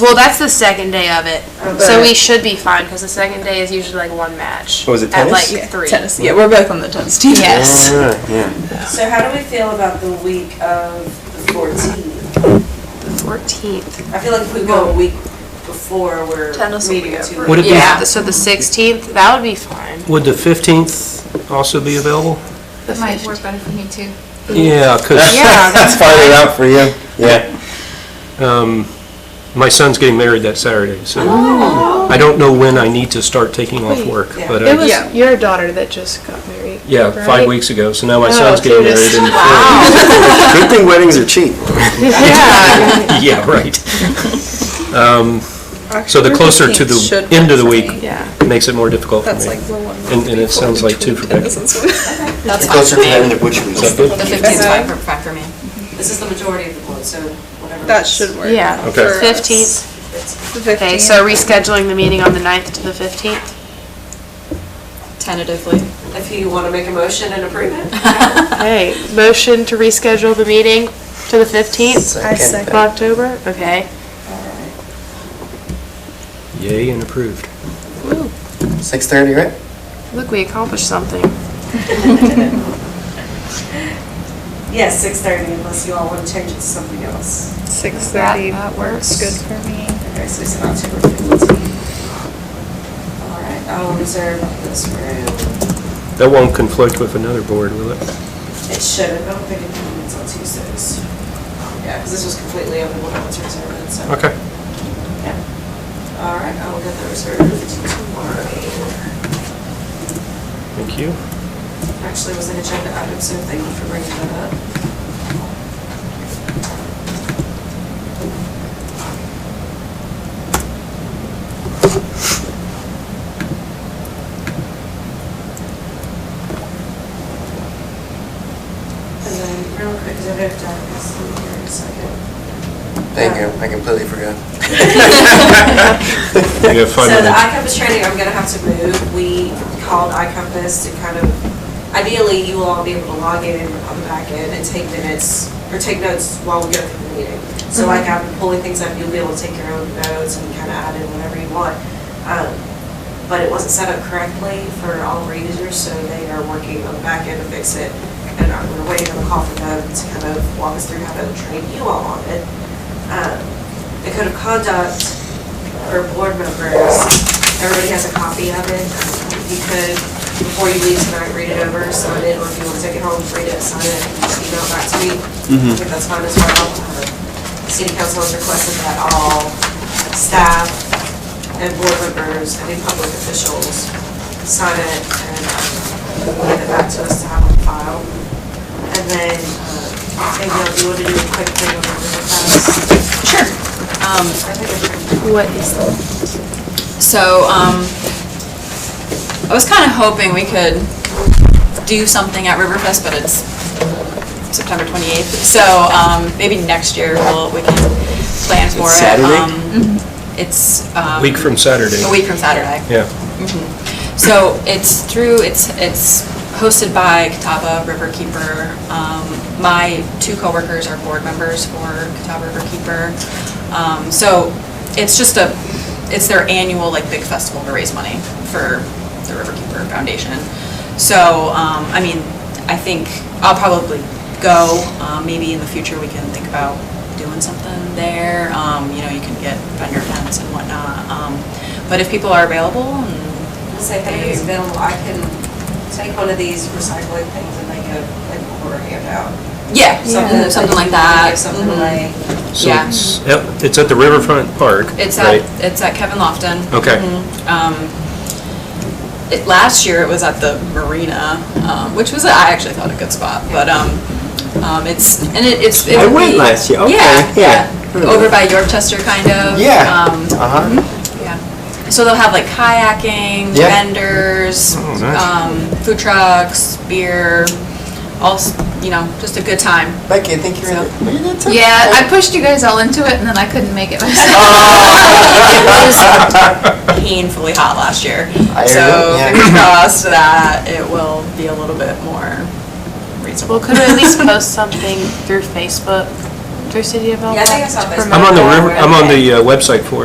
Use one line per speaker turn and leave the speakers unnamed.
Well, that's the second day of it, so
but-
we should be fine because the second day is usually like one match.
Oh, is it
At
tennis?
like
Yeah,
three.
Tennis. Yeah, we're both on the tennis team.
Yes.
Alright, yeah.
So how do we feel about the week of the 14th?
The fourteenth.
I feel like if we go a week before, we're
Tennis will
meeting
be
in two
over.
Would it
weeks.
be-
Yeah. So the sixteenth, that would be fine.
Would the 15th also be available?
The
That might work better for me too.
Yeah, because
Yeah.
Let's find it out for you. Yeah.
my son's getting married that Saturday, so I don't know when I need to start taking off work,
Yeah.
but,
It
I-
was
Yeah.
your daughter that just got married.
yeah, five
right?
weeks ago, so now my
Oh,
son's getting
Judas.
married. in-
Good thing weddings are cheap.
Yeah, right. Um, So the
October
closer to
15th
the
should
end of the
work for
week
me.
Yeah.
makes it more difficult for
That's like
me.
the one.
And- and it
before
sounds like two
between
for Becky.
tennis and swim.
That's fine.
Closer to the end of which week.
Is that good?
The 15th is fine for, fine for me.
This is the majority of the board, so whatever.
That
it is.
should work.
Yeah.
Okay.
for us.
Fifteenth.
The
Okay,
15th.
so rescheduling the meeting on the 9th to the fifteenth.
Tentatively.
If you want to make a motion and approve it.
Okay, motion to reschedule the meeting to the fifteenth
I
of
second.
October. Okay.
Yay and approved.
Six thirty, right?
Look, we accomplished something.
Yes, 6:30 unless you all want to change it to something else.
Six
That,
thirty.
that works.
Good for me.
Okay, so it's not October 15th. All right, I will reserve this room.
That won't conflict with another board, will it?
It shouldn't, I don't think it meets on Tuesdays. Yeah, because this was completely open when I was reserving, so.
Okay.
Yeah. All right, I will get that reserved tomorrow.
Thank you.
actually was an agenda item, so thank you for bringing that up. And then, real quick, because I have to have this in here in a second.
Thank you, I completely forgot.
You have five
So the
minutes.
iCompass training, I'm gonna have to move. We called iCompass to kind of, ideally, you will all be able to log in on the back end and take minutes, or take notes while we go through the meeting. So like I'm pulling things up, you'll be able to take your own notes and kind of add in whatever you want. Um, But it wasn't set up correctly for all of our users, so they are working on the back end to fix it. And I'm- we're waiting on a call from them to kind of walk us through how to train you all on it. Um, The code of conduct or board members, everybody has a copy of it. If You could, before you leave tonight, read it over, sign it, or if you want to take it home, read it, sign it, and just email it back to me. If that's fine as well. Uh, City council has requested that all staff and board members, any public officials, sign it and um, get it back to us to have on file. And then, uh, maybe I'll do, you want to do a quick thing on the past?
Sure. Um,
I think I
What is that?
so, um, I was kind of hoping we could do something at Riverfest, but it's September 28th. So, um, maybe next year we'll, we can plan for it.
Saturday?
Um,
Mm-hmm.
It's, um.
Week from Saturday.
A week from Saturday.
Yeah,
So it's through, it's, it's hosted by Catawba Riverkeeper. Um, My two coworkers are board members for Catawba Riverkeeper. Um, So it's just a, it's their annual, like, big festival to raise money for the Riverkeeper Foundation. So, um, I mean, I think I'll probably go. Um, Maybe in the future, we can think about doing something there. Um, You know, you can get vendor tents and whatnot. Um, But if people are available and
I'll say, hey, it's available, I can take one of these recycling things and make a, like, or handout.
Yeah, something, something like that.
Give Something
Mhm.
like,
so
Yeah.
it's, at- it's at the Riverfront Park,
It's
right?
at, it's at Kevin Lofton.
Okay.
Mhm. Um, it, last year it was at the Marina, um, which was, I actually thought a good spot, but, um, um, it's, and it, it's. it
I
would
went
be-
last year, okay, yeah.
Yeah, yeah, over by Yorkchester kind of.
Yeah.
Um,
Uh-huh.
yeah. So they'll have like kayaking,
Yeah.
vendors,
Oh, nice.
um, food trucks, beer, all, s- you know, just a good time.
Becky, I think you're in it. Were you in it too?
Yeah,
Oh.
I pushed you guys all into it and then I couldn't make it myself. it was painfully hot last year.
I heard
so
it, yeah.
fingers crossed that it will be a little bit more reasonable.
Well, could we at least post something through Facebook?
Through City of Elk.
Yeah, I think I saw
to
this.
promote
I'm on the,
that.
river- I'm on the uh, website for it.